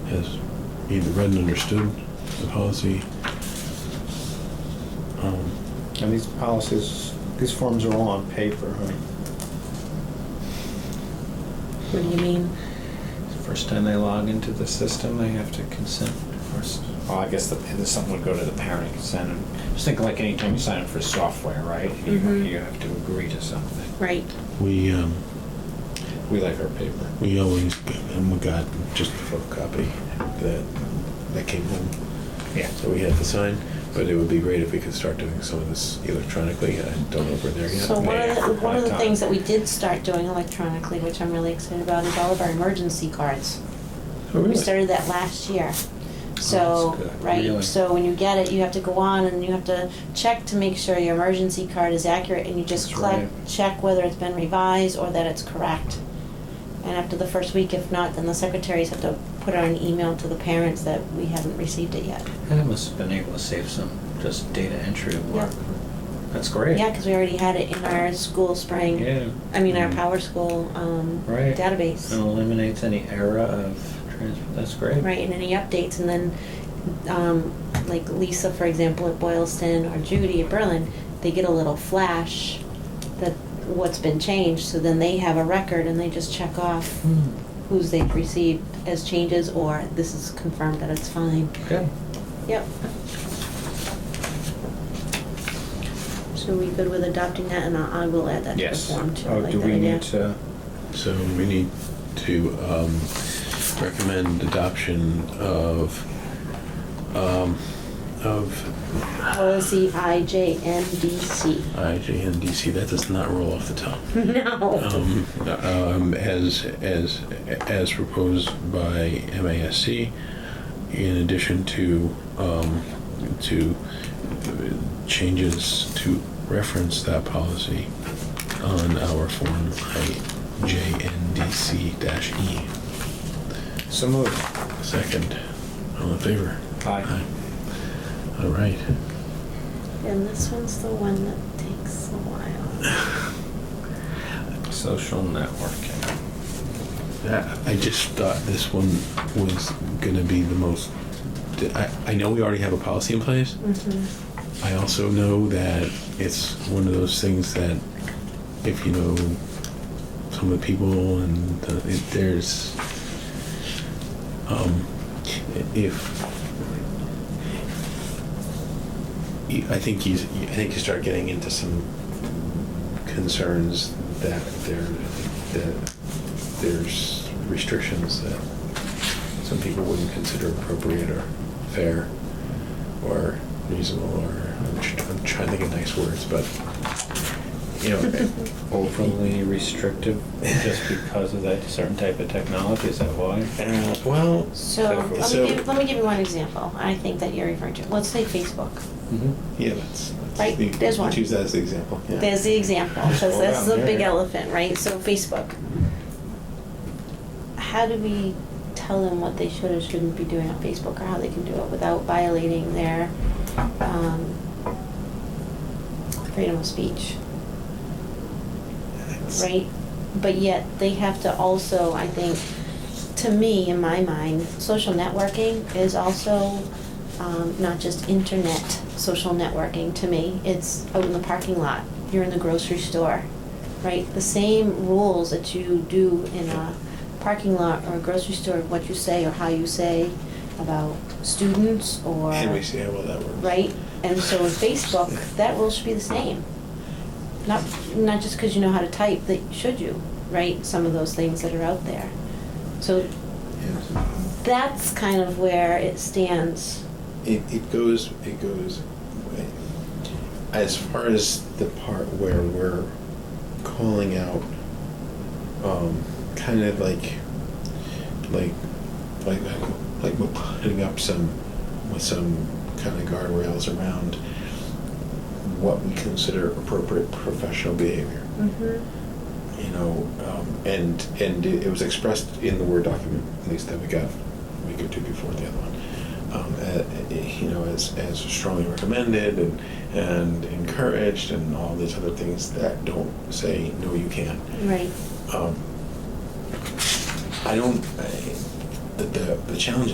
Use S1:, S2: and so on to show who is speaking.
S1: has either read and understood the policy. Um,
S2: And these policies, these forms are all on paper, right?
S3: What do you mean?
S2: First time they log into the system, they have to consent first. Well, I guess the, the- something would go to the parent consent. and- Just think like anytime you sign up for software, right? You,
S3: Mhm.
S2: you have to agree to something.
S3: Right.
S1: We, um,
S2: We like our paper.
S1: we always, and we got just a photocopy that, that came home.
S2: Yeah.
S1: that we have to sign, but it would be great if we could start doing some of this electronically. I don't know if we're there yet.
S3: So one of
S2: Yeah,
S3: the, one of the
S2: laptop.
S3: things that we did start doing electronically, which I'm really excited about, is all of our emergency cards.
S1: Oh,
S3: We
S1: really?
S3: started that last year. So,
S2: Oh, That's good. Really?
S3: right, so when you get it, you have to go on and you have to check to make sure your emergency card is accurate and you just
S2: That's
S3: click,
S2: right.
S3: check whether it's been revised or that it's correct. And after the first week, if not, then the secretaries have to put out an email to the parents that we haven't received it yet.
S4: I must have been able to save some just data entry
S3: Yeah.
S4: work. That's great.
S3: Yeah, because we already had it in our school spring.
S4: Yeah.
S3: I mean, our
S4: Mm.
S3: power school um,
S4: Right.
S3: database.
S4: It eliminates any error of transfer. That's great.
S3: Right, and any updates, and then, um, like Lisa, for example, at Boylston, or Judy at Berlin, they get a little flash that what's been changed, so then they have a record and they just check off
S4: Hmm.
S3: who's they've received as changes, or this is confirmed that it's fine.
S4: Good.
S3: Yep. So we good with adopting that, and I I will add that to the
S2: Yes.
S3: form too. I
S2: Oh,
S3: like
S2: do
S3: that
S2: we
S3: idea.
S2: need to?
S1: So we need to um, recommend adoption of, um, of
S3: Policy IJMDC.
S1: IJNDC. That does not roll off the tongue.
S3: No.
S1: Um, um, As, as, as proposed by MASC, in addition to, um, to uh, changes to reference that policy on our form JNDC-E.
S2: So moved.
S1: E. Second, all in favor?
S2: Aye.
S1: All right.
S3: And this one's the one that takes a while.
S2: Social networking.
S1: Yeah, I just thought this one was gonna be the most, I, I know we already have a policy in place,
S3: Mm-hmm.
S1: I also know that it's one of those things that if you know some of the people and uh, it, there's um, if I think you I think you start getting into some concerns that there that there's restrictions that some people wouldn't consider appropriate or fair or reasonable or I'm, tr- I'm trying to think of nice words, but you know,
S2: Overly restrictive just because of that certain type of technology, is that why?
S1: uh, well,
S3: So, let
S1: So-
S3: me give, let me give you one example, I think that you're referring to, let's say Facebook.
S2: Mhm.
S1: yeah, that's, that's
S3: Right,
S1: the-
S3: there's one.
S1: Choose that as the example. Yeah.
S3: There's the example, because
S2: Scroll
S3: that's the
S2: down,
S3: big
S2: yeah.
S3: elephant, right, so Facebook. How do we tell them what they should or shouldn't be doing on Facebook, or how they can do it without violating their, um, freedom of speech?
S1: That's-
S3: right? But yet they have to also, I think, to me, in my mind, social networking is also um, not just internet social networking to me. It's out in the parking lot, you're in the grocery store, right? The same rules that you do in a parking lot or a grocery store, what you say or how you say about students or
S1: And we see how well that works.
S3: right? And so in Facebook, that rule should be the same. Not, not just because you know how to type, that should you, right? Some of those things that are out there. So
S1: Yeah.
S3: that's kind of where it stands.
S1: It, it goes, it goes, as far as the part where we're calling out, um, kind of like, like, like, like we're putting up some, with some kind of guardrails around what we consider appropriate professional behavior
S3: Mm-hmm.
S1: you know, um, and and it, it was expressed in the word document, at least that we got a week or two before the other one. Um, uh, you know, as, as strongly recommended and and encouraged, and all these other things that don't say no, you can't.
S3: Mm. Right.
S1: Um, I don't. I, the, the the challenge